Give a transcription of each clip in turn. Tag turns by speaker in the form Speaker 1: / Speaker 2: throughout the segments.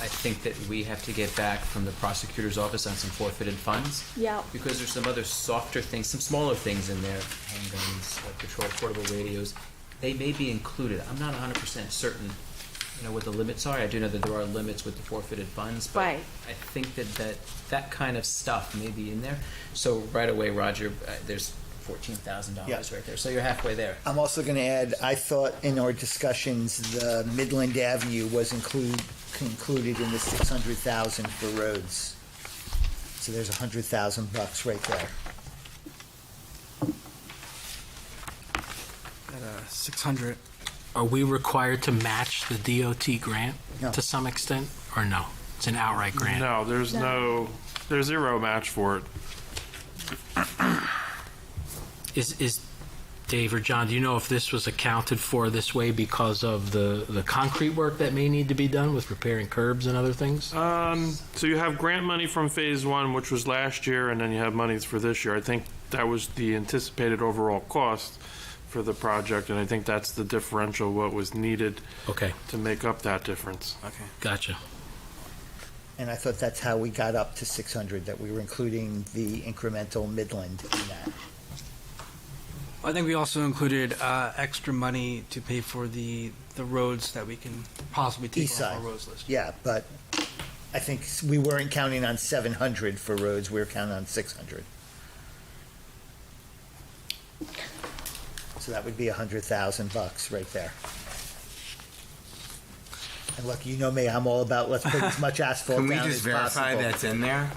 Speaker 1: think that we have to get back from the prosecutor's office on some forfeited funds.
Speaker 2: Yeah.
Speaker 1: Because there's some other softer things, some smaller things in there, handguns, uh, patrol portable radios. They may be included. I'm not hundred percent certain, you know, what the limits are. I do know that there are limits with the forfeited funds, but
Speaker 2: Right.
Speaker 1: I think that that, that kind of stuff may be in there. So right away, Roger, uh, there's fourteen thousand dollars
Speaker 3: Yeah.
Speaker 1: right there. So you're halfway there.
Speaker 3: I'm also going to add, I thought in our discussions, the Midland Avenue was include, included in the six hundred thousand for roads. So there's a hundred thousand bucks right there.
Speaker 4: uh, Six hundred. Are we required to match the DOT grant
Speaker 3: No.
Speaker 4: to some extent, or no? It's an outright grant?
Speaker 5: No, there's
Speaker 2: No.
Speaker 5: no, there's zero match for it.
Speaker 4: Is, is, Dave or John, do you know if this was accounted for this way because of the, the concrete work that may need to be done with repairing curbs and other things?
Speaker 5: Um, so you have grant money from phase one, which was last year, and then you have monies for this year. I think that was the anticipated overall cost for the project, and I think that's the differential, what was needed
Speaker 4: Okay,
Speaker 5: to make up that difference.
Speaker 4: gotcha.
Speaker 3: And I thought that's how we got up to six hundred, that we were including the incremental Midland in that.
Speaker 6: I think we also included uh, extra money to pay for the, the roads that we can possibly take
Speaker 3: East
Speaker 6: off our
Speaker 3: side.
Speaker 6: roads list.
Speaker 3: Yeah, but I think s- we weren't counting on seven hundred for roads, we were counting on six hundred. So that would be a hundred thousand bucks right there. And look, you know me, I'm all about let's put as much asphalt
Speaker 7: Can we
Speaker 3: down
Speaker 7: just
Speaker 3: as
Speaker 7: verify
Speaker 3: possible.
Speaker 7: that's in there?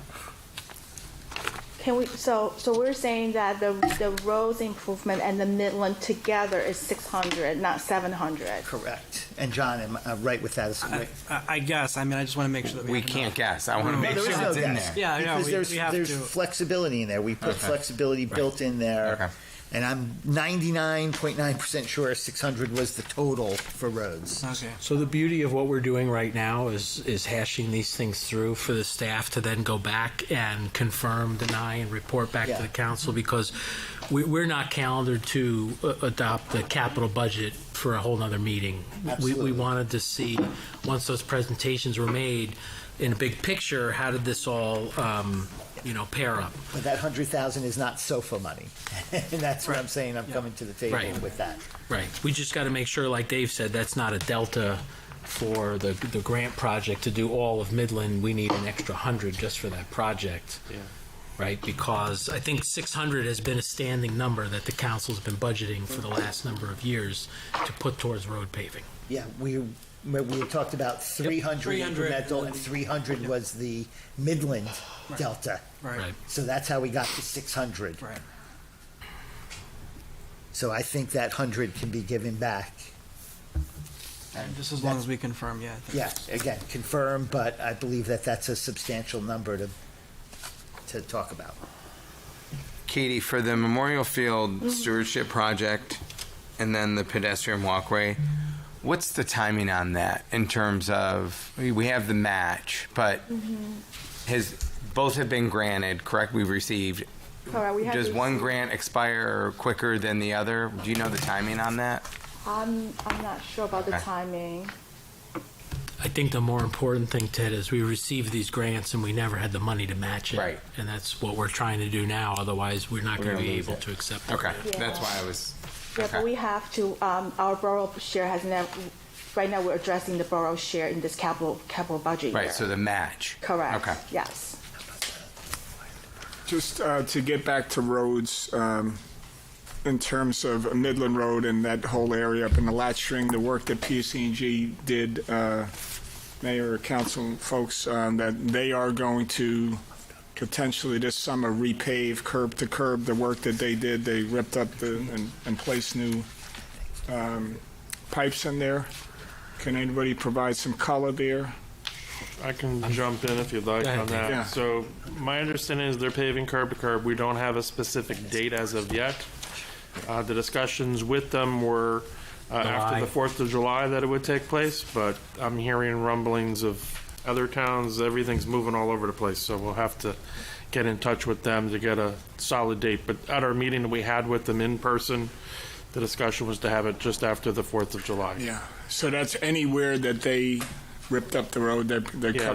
Speaker 2: Can we, so, so we're saying that the, the roads improvement and the Midland together is six hundred, not seven hundred?
Speaker 3: Correct. And John, am I right with that?
Speaker 7: Uh,
Speaker 3: Is-
Speaker 6: I, I, I guess. I mean, I just want to make sure that we,
Speaker 7: We
Speaker 6: have
Speaker 7: can't
Speaker 6: enough.
Speaker 7: guess. I want to
Speaker 6: No,
Speaker 7: make
Speaker 3: There
Speaker 7: sure
Speaker 3: is no
Speaker 7: it's in
Speaker 3: guess.
Speaker 7: there.
Speaker 6: Yeah, yeah,
Speaker 3: Because
Speaker 6: we,
Speaker 3: there's,
Speaker 6: we have
Speaker 3: there's
Speaker 6: to.
Speaker 3: flexibility in there. We put
Speaker 7: Okay.
Speaker 3: flexibility
Speaker 7: Right.
Speaker 3: built in there.
Speaker 7: Okay.
Speaker 3: And I'm 99.9% sure 600 was the total for roads.
Speaker 6: Okay.
Speaker 4: So the beauty of what we're doing right now is, is hashing these things through for the staff to then go back and confirm, deny, and report back
Speaker 3: Yeah.
Speaker 4: to the council because we, we're not calendared to uh, adopt the capital budget for a whole nother meeting. We,
Speaker 3: Absolutely.
Speaker 4: we wanted to see, once those presentations were made, in a big picture, how did this all, um, you know, pair up?
Speaker 3: But that 100,000 is not sofa money. and that's what I'm saying. I'm coming to the table
Speaker 4: Right.
Speaker 3: with that.
Speaker 4: Right. We just got to make sure, like Dave said, that's not a delta for the, the grant project to do all of Midland. We need an extra hundred just for that project.
Speaker 5: Yeah.
Speaker 4: Right, because I think six hundred has been a standing number that the council's been budgeting for the last number of years to put towards road paving.
Speaker 3: Yeah, we we we talked about 300,
Speaker 6: 300.
Speaker 3: incremental and 300 was the Midland Delta.
Speaker 6: Right.
Speaker 4: Right.
Speaker 3: So that's how we got to 600.
Speaker 6: Right.
Speaker 3: So I think that 100 can be given back.
Speaker 6: And just as long as we confirm, yeah. I think
Speaker 3: Yeah, again, confirm, but I believe that that's a substantial number to, to talk about.
Speaker 7: Katie, for the Memorial
Speaker 2: Mm-hmm.
Speaker 7: Field Stewardship Project and then the pedestrian walkway, what's the timing on that in terms of, I mean, we have the match, but
Speaker 2: Mm-hmm.
Speaker 7: has, both have been granted, correct? We've received.
Speaker 2: Correct, Uh, we have
Speaker 7: Does one
Speaker 2: received.
Speaker 7: grant expire quicker than the other? Do you know the timing on that?
Speaker 2: I'm, I'm not sure about the
Speaker 7: Okay.
Speaker 2: timing.
Speaker 4: I think the more important thing, Ted, is we received these grants and we never had the money to match it.
Speaker 7: Right.
Speaker 4: And that's what we're trying to do now, otherwise we're not
Speaker 7: We're
Speaker 4: going to
Speaker 7: gonna
Speaker 4: be
Speaker 7: lose
Speaker 4: able
Speaker 7: it.
Speaker 4: to accept. the
Speaker 7: Okay,
Speaker 4: grant.
Speaker 7: that's
Speaker 2: Yeah.
Speaker 7: why I was.
Speaker 2: Yeah, but
Speaker 7: okay.
Speaker 2: we have to, um, our borough share has never, right now, we're addressing the borough share in this capital, capital budget year.
Speaker 7: Right, so the match.
Speaker 2: Correct,
Speaker 7: Okay.
Speaker 2: yes.
Speaker 8: Just uh, to get back to roads, um, in terms of Midland Road and that whole area up in the lat string, the work that PSCNG did, uh, mayor, council folks, um, that they are going to potentially this summer repave curb to curb, the work that they did, they ripped up the, and, and placed new, um, pipes in there. Can anybody provide some color there?
Speaker 5: I can jump in if you'd like
Speaker 4: Go ahead,
Speaker 5: on
Speaker 4: Dave.
Speaker 5: that.
Speaker 8: Yeah.
Speaker 5: So my understanding is they're paving curb to curb. We don't have a specific date as of yet. Uh, the discussions with them were uh, after
Speaker 4: July.
Speaker 5: the Fourth of July that it would take place, but I'm hearing rumblings of other towns. Everything's moving all over the place, so we'll have to get in touch with them to get a solid date. But at our meeting that we had with them in person, the discussion was to have it just after the Fourth of July.
Speaker 8: Yeah, so that's anywhere that they ripped up the road, they're, they're
Speaker 5: Yeah,
Speaker 8: cutting